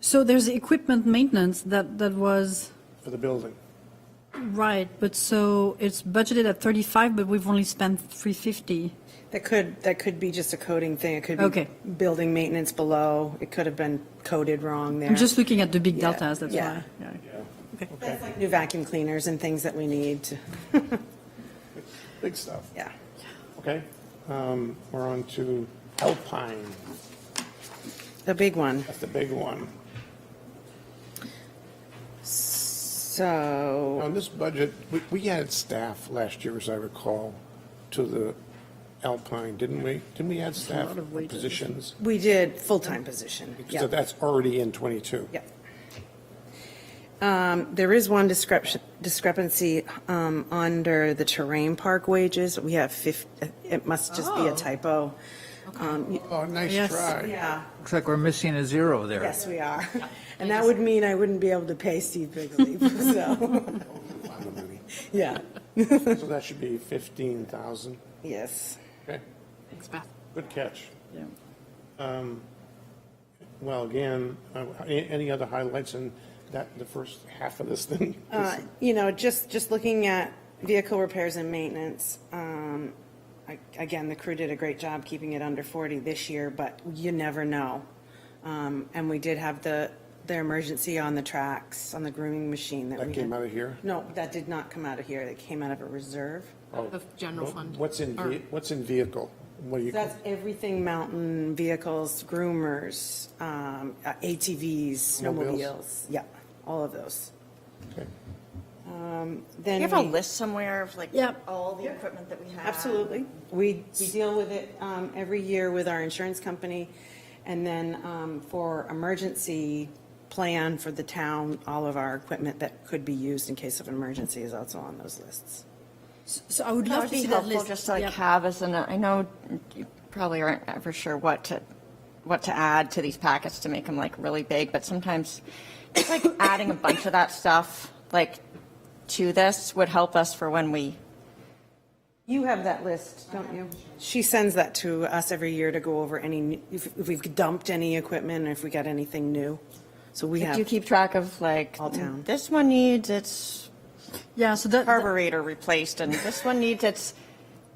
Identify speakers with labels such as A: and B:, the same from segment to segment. A: So there's equipment maintenance that, that was,
B: for the building.
A: right, but so it's budgeted at 35, but we've only spent 350.
C: That could, that could be just a coding thing. It could be.
A: Okay.
C: Building maintenance below. It could have been coded wrong there.
A: I'm just looking at the big
C: Yeah,
A: deltas, that's
C: yeah.
A: why. yeah.
C: That's like New vacuum cleaners and things that we need to,
B: Big stuff.
C: yeah.
B: Okay, um, we're on to Alpine.
C: The big one.
B: That's the big one.
C: So.
B: On this budget, we, we added staff last year, as I recall, to the Alpine, didn't we? Didn't we add staff positions?
C: We did full-time position,
B: So
C: yeah,
B: that's already in 22.
C: yeah. Um, There is one discrep- discrepancy um, under the terrain park wages. We have 50, it must just be a
A: Oh.
C: typo. Um, y-
B: Oh, nice
A: Yes.
B: try.
C: Yeah,
D: Looks like we're missing a zero there.
C: yes, we are. And that would mean I wouldn't be able to pay Steve Bigley, so, yeah,
B: So that should be 15,000.
C: yes.
B: Okay,
A: Thanks, Beth.
B: good catch. Um,
A: Yeah.
B: Well, again, uh, a- any other highlights in that, the first half of this thing?
C: Uh, You know, just, just looking at vehicle repairs and maintenance, um, I- again, the crew did a great job keeping it under 40 this year, but you never know. Um, And we did have the, their emergency on the tracks, on the grooming machine that we
B: That
C: had.
B: came out of here?
C: No, that did not come out of here, that came out of a reserve.
E: Of general fund.
B: What's in,
E: Or-
B: ve- what's in vehicle? What do you,
C: That's everything mountain vehicles, groomers, um, uh, ATVs,
B: Snowmobiles.
C: snowmobiles, yeah, all of those.
B: okay.
C: Then
F: Do you have a
C: we-
F: list somewhere of like
A: Yep.
F: all the equipment that we have?
C: Absolutely. We, we deal with it um, every year with our insurance company. And then um, for emergency plan for the town, all of our equipment that could be used in case of emergency is also on those lists.
A: So I would
F: That
A: love
F: would
A: to
F: be
A: see that
F: helpful
A: list.
F: just to like
A: Yeah.
F: have as an, I know you probably aren't ever sure what to, what to add to these packets to make them like really big, but sometimes it's like adding a bunch of that stuff, like to this would help us for when we,
C: You have that list, don't you? She sends that to us every year to go over any, if if we've dumped any equipment, or if we got anything new. So we
F: do you
C: have,
F: keep track of like, "Mm,
C: All town.
F: this one needs its
A: Yeah, so that, that-
F: carburetor replaced and this one needs its,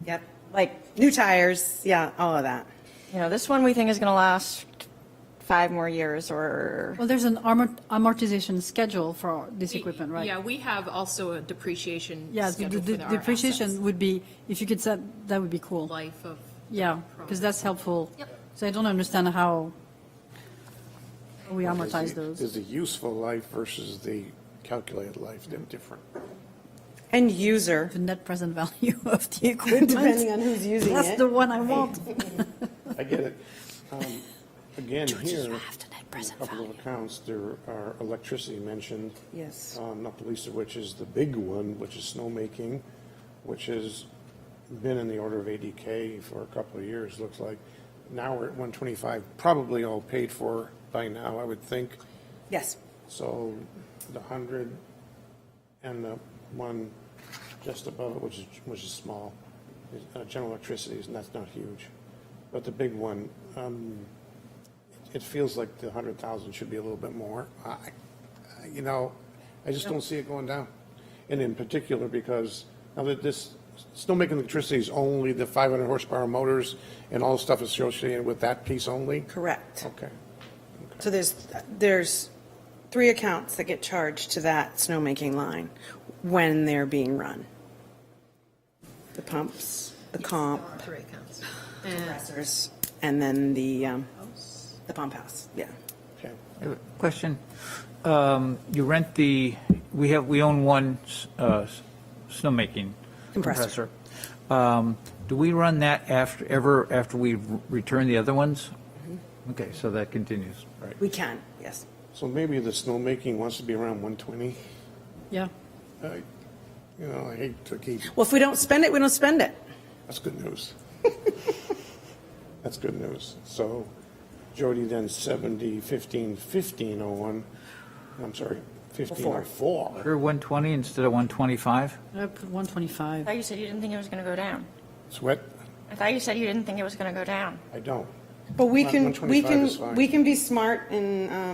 C: yep,
F: like,
C: new tires, yeah, all of that.
F: you know, this one we think is going to last five more years or
A: well, there's an amort- amortization schedule for this equipment, right?
E: Yeah, we have also a depreciation
A: Yeah, the- the
E: schedule for
A: the
E: our assets.
A: depreciation would be, if you could set, that would be cool.
E: Life of.
A: Yeah, because that's helpful. So I don't understand how we amortize those.
B: Is the useful life versus the calculated life, they're different.
C: And user,
A: The net present value of the equipment.
C: Depending on who's using
A: That's
C: it.
A: the one I want.
B: I get it. Um, Again, here,
A: the net
B: a couple of accounts, there are electricity mentioned.
C: Yes.
B: Um, Not the least of which is the big one, which is snowmaking, which has been in the order of 80K for a couple of years, looks like. Now we're at 125, probably all paid for by now, I would think.
C: yes,
B: So the 100 and the one just above it, which is, which is small, is, uh, general electricity, is- and that's not huge. But the big one, um, it feels like the 100,000 should be a little bit more. I, I- you know, I just don't see it going down. And in particular, because now that this, snowmaking electricity is only the 500 horsepower motors and all the stuff associated with that piece only?
C: correct.
B: Okay.
C: So there's, there's three accounts that get charged to that snowmaking line when they're being run. The pumps, the comp,
E: Three accounts.
C: compressors, and then the, um, the pump house, yeah.
B: Okay.
D: Uh, Question, um, you rent the, we have, we own one, uh, snowmaking
C: Compressor.
D: compressor. Um, do we run that after, ever after we return the other ones? Okay, so that continues, right?
C: We can, yes.
B: So maybe the snowmaking wants to be around 120.
A: Yeah.
B: I- You know, I hate to keep,
C: Well, if we don't spend it, we don't spend it.
B: that's good news. That's good news. So Jody then 70, 15, 15, 01, I'm sorry, oh 15,
C: Four.
B: 04.
D: Or 120 instead of 125?
A: I put
F: I
A: 125.
F: thought you said you didn't think it was going to go down.
B: Sweat,
F: I thought you said you didn't think it was going to go down.
B: I don't.
C: But we
B: One-
C: can, we
B: 125 is fine.
C: can, we can be smart and, um,